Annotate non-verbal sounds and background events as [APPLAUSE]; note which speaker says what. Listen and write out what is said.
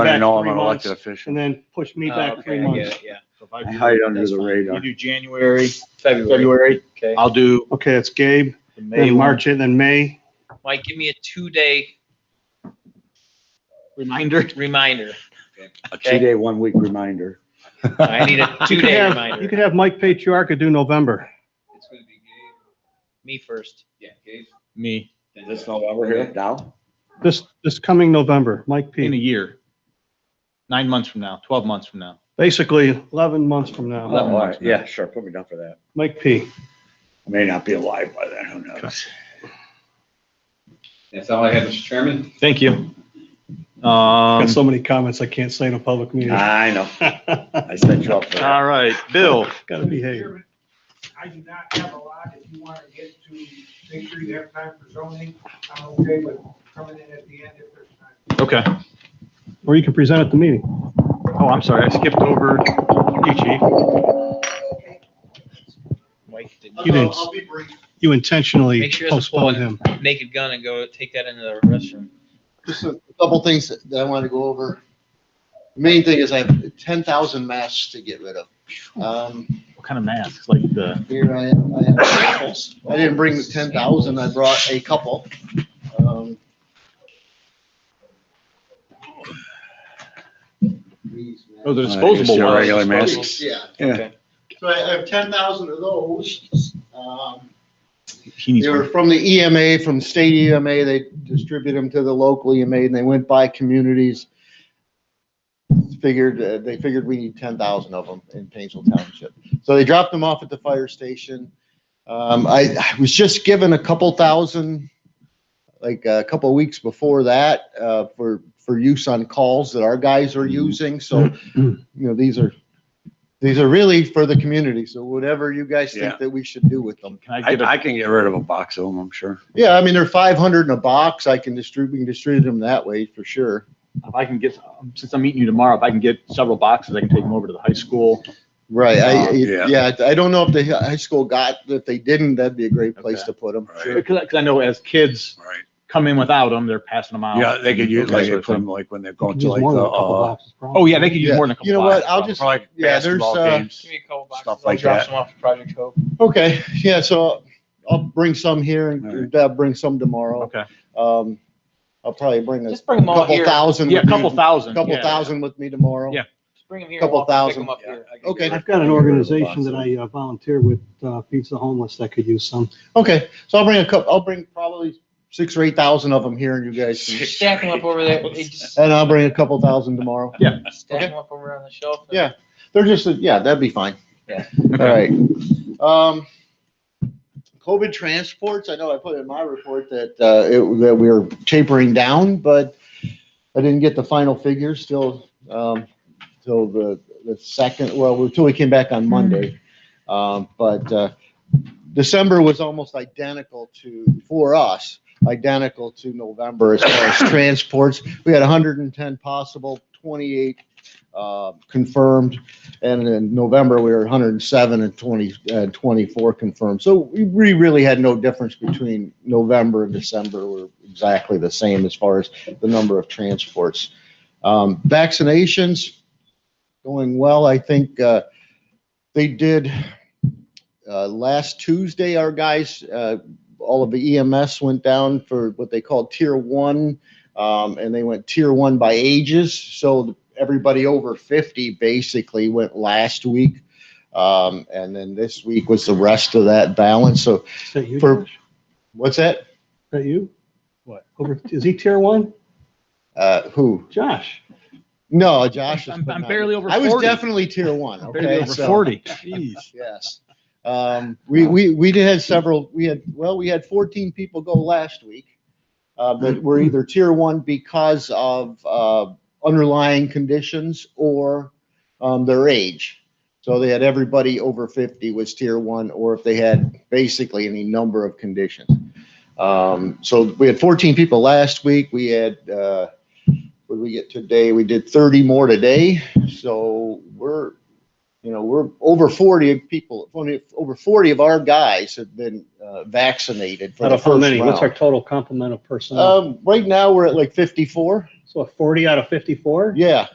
Speaker 1: I don't
Speaker 2: back
Speaker 1: know, I'm
Speaker 2: three
Speaker 1: an elected
Speaker 2: months
Speaker 1: official.
Speaker 2: and then push me
Speaker 3: Oh,
Speaker 2: back three
Speaker 3: okay, I get
Speaker 2: months.
Speaker 3: it, Yeah,
Speaker 4: So if I
Speaker 1: I
Speaker 4: do-
Speaker 1: hide under
Speaker 3: That's
Speaker 1: the
Speaker 3: fine.
Speaker 4: You
Speaker 1: radar.
Speaker 4: do January,
Speaker 3: February,
Speaker 4: February,
Speaker 3: okay.
Speaker 4: I'll do
Speaker 2: Okay, it's Gabe,
Speaker 4: the May
Speaker 2: then
Speaker 4: one
Speaker 2: March, and then May.
Speaker 3: Mike, give me a two-day
Speaker 4: reminder.
Speaker 3: reminder.
Speaker 1: A two-day, one-week reminder. [LAUGHS]
Speaker 3: I need
Speaker 2: You
Speaker 3: a
Speaker 2: could
Speaker 3: two-day
Speaker 2: have-
Speaker 3: reminder.
Speaker 2: You could have Mike Patriarca do November.
Speaker 5: It's gonna be Gabe,
Speaker 3: Me first.
Speaker 5: yeah, Gabe.
Speaker 4: Me,
Speaker 5: then
Speaker 1: This
Speaker 5: Doug.
Speaker 1: November here, now?
Speaker 2: This, this coming November, Mike
Speaker 4: in a
Speaker 2: P.
Speaker 4: year. Nine months from now, twelve months from now.
Speaker 2: Basically, 11 months from
Speaker 1: Oh,
Speaker 2: now,
Speaker 4: Eleven
Speaker 1: all right,
Speaker 4: months now.
Speaker 1: yeah, sure, put me down for that.
Speaker 2: Mike P.
Speaker 1: I May not be alive by then, who knows?
Speaker 5: That's all I have, Mr. Chairman.
Speaker 4: Thank you.
Speaker 2: Got
Speaker 4: Um,
Speaker 2: so many comments I can't say in a public meeting. [LAUGHS]
Speaker 1: I know, I set you up for that.
Speaker 4: all right, Bill,
Speaker 2: Gotta behave.
Speaker 6: Chairman, I do not have a lot. If you want to get to, make sure you have time for zoning, I'm okay with coming in at the end if there's time.
Speaker 4: okay.
Speaker 2: Or you can present at the meeting.
Speaker 4: Oh, I'm sorry, I skipped over E you, chief.
Speaker 3: Mike, did
Speaker 2: You didn't.
Speaker 6: I'll be brief.
Speaker 2: You intentionally
Speaker 3: Make sure it's a
Speaker 2: postponed
Speaker 3: point.
Speaker 2: him.
Speaker 3: naked gun and go take that into the restroom.
Speaker 7: just a couple things that I wanted to go over. Main thing is I have ten thousand masks to get rid of. Um,
Speaker 4: What kind of masks? Like the,
Speaker 7: here I, I have samples. I didn't bring the ten thousand, I brought a couple. Um, these masks.
Speaker 4: oh, the
Speaker 1: disposable
Speaker 4: disposable
Speaker 1: ones.
Speaker 4: ones.
Speaker 1: masks.
Speaker 7: Yeah,
Speaker 1: Yeah,
Speaker 7: so I I have ten thousand of those. Um,
Speaker 4: He needs
Speaker 7: They were
Speaker 4: one.
Speaker 7: from the EMA, from state EMA, they distribute them to the local EMA, and they went by communities. Figured, uh, they figured we need ten thousand of them in Painesville Township. So they dropped them off at the fire station. Um, I, I was just given a couple thousand, like uh, a couple of weeks before that, uh, for, for use on calls that our guys are using, so, you know, these are, these are really for the community, so whatever you guys
Speaker 1: Yeah.
Speaker 7: think that we should do with them.
Speaker 4: Can I
Speaker 1: I,
Speaker 4: get a,
Speaker 1: I can get rid of a box of them, I'm sure.
Speaker 7: Yeah, I mean, they're five hundred in a box. I can distribute, we can distribute them that way for sure.
Speaker 4: if I can get, um, since I'm meeting you tomorrow, if I can get several boxes, I can take them over to the high school.
Speaker 7: Right, I,
Speaker 1: Um, yeah.
Speaker 7: yeah, I don't know if the high school got, if they didn't, that'd be a great place
Speaker 4: Okay.
Speaker 7: to put them.
Speaker 1: Right,
Speaker 4: Because, because I know as kids
Speaker 1: right.
Speaker 4: come in without them, they're passing them out.
Speaker 1: Yeah, they could use,
Speaker 4: Okay.
Speaker 1: like, they put them like when they're going to
Speaker 2: Just
Speaker 1: like
Speaker 2: more
Speaker 1: the,
Speaker 2: than a couple
Speaker 1: uh,
Speaker 2: boxes,
Speaker 4: Oh,
Speaker 2: probably.
Speaker 4: yeah, they could use
Speaker 7: Yeah.
Speaker 4: more than a couple.
Speaker 7: You know what?
Speaker 4: boxes,
Speaker 7: I'll
Speaker 4: probably.
Speaker 7: just-
Speaker 1: for, like
Speaker 7: Yeah, there's,
Speaker 1: basketball
Speaker 7: uh,
Speaker 1: games.
Speaker 3: Give me a couple boxes.
Speaker 1: Stuff
Speaker 3: I'll
Speaker 1: like
Speaker 3: drop
Speaker 1: that.
Speaker 3: some off at Project Hope.
Speaker 7: Okay, yeah, so I'll bring some here
Speaker 1: All
Speaker 7: and
Speaker 1: right.
Speaker 7: Deb bring some tomorrow.
Speaker 4: Okay.
Speaker 7: Um, I'll probably bring a
Speaker 3: Just bring them all
Speaker 7: couple
Speaker 3: here.
Speaker 7: thousand.
Speaker 4: Yeah, a
Speaker 7: with me-
Speaker 4: couple thousand.
Speaker 7: Couple
Speaker 4: yeah.
Speaker 7: thousand with me tomorrow.
Speaker 4: Yeah.
Speaker 3: Just bring them here.
Speaker 7: Couple
Speaker 3: We'll pick
Speaker 7: thousand.
Speaker 3: 'em up
Speaker 1: Yeah, [LAUGHS]
Speaker 3: here.
Speaker 1: I can
Speaker 7: Okay.
Speaker 1: get
Speaker 2: I've got
Speaker 1: rid
Speaker 2: an
Speaker 1: of a
Speaker 2: organization
Speaker 1: box of
Speaker 2: that
Speaker 1: 'em.
Speaker 2: I uh, volunteer with, uh, feeds the homeless that could use some.
Speaker 7: Okay, so I'll bring a couple, I'll bring probably six or eight thousand of them here and you guys,
Speaker 1: [LAUGHS]
Speaker 7: can-
Speaker 3: Stack them up over there. Hey,
Speaker 7: [LAUGHS]
Speaker 3: just
Speaker 7: and I'll bring a couple thousand tomorrow.
Speaker 3: Stack them up over on the shelf. and-
Speaker 7: Yeah. They're just, yeah, that'd be fine.
Speaker 3: Yeah.
Speaker 7: All right. Um, COVID transports, I know I put in my report that, uh, it, that we are tapering down, but I didn't get the final figures still, um, till the, the second, well, until we came back on Monday. Um, but, uh, December was almost identical to, for us, identical to November as far as transports. We had hundred and ten possible, twenty-eight, uh, confirmed. And in November, we were 107 and 20, uh, 24 confirmed. So we we really had no difference between November and December. We're exactly the same as far as the number of transports. Um, vaccinations going well. I think, uh, they did, uh, last Tuesday, our guys, uh, all of the EMS went down for what they call tier one. Um, and they went tier one by ages. So the everybody over 50 basically went last week. Um, and then this week was the rest of that balance. So
Speaker 2: Is that you,
Speaker 7: For-
Speaker 2: Josh?
Speaker 7: what's that?
Speaker 2: Is that you? What? Over, is he tier one?
Speaker 7: Uh, who?
Speaker 2: Josh?
Speaker 7: No, Josh. is
Speaker 4: I'm- I'm
Speaker 7: not-
Speaker 4: barely over
Speaker 7: I was
Speaker 4: 40.
Speaker 7: definitely
Speaker 4: [LAUGHS]
Speaker 7: tier one.
Speaker 4: Barely
Speaker 7: Okay.
Speaker 4: over
Speaker 7: so-
Speaker 4: Forty.
Speaker 7: [LAUGHS]
Speaker 4: Jeez.
Speaker 7: Yes. Um, we, we, we did have several, we had, well, we had 14 people go last week. Uh, that were either tier one because of, uh, underlying conditions or, um, their age. So they had everybody over 50 was tier one, or if they had basically any number of conditions. Um, so we had 14 people last week. We had, uh, what did we get today? We did 30 more today. So we're, you know, we're over 40 of people, only over 40 of our guys have been uh, vaccinated for
Speaker 2: Out
Speaker 7: the
Speaker 2: of how
Speaker 7: first
Speaker 2: many? What's our
Speaker 7: round.
Speaker 2: total complement of personnel?
Speaker 7: Um, right now, we're at like 54.
Speaker 8: So a 40 out of 54?
Speaker 2: Yeah,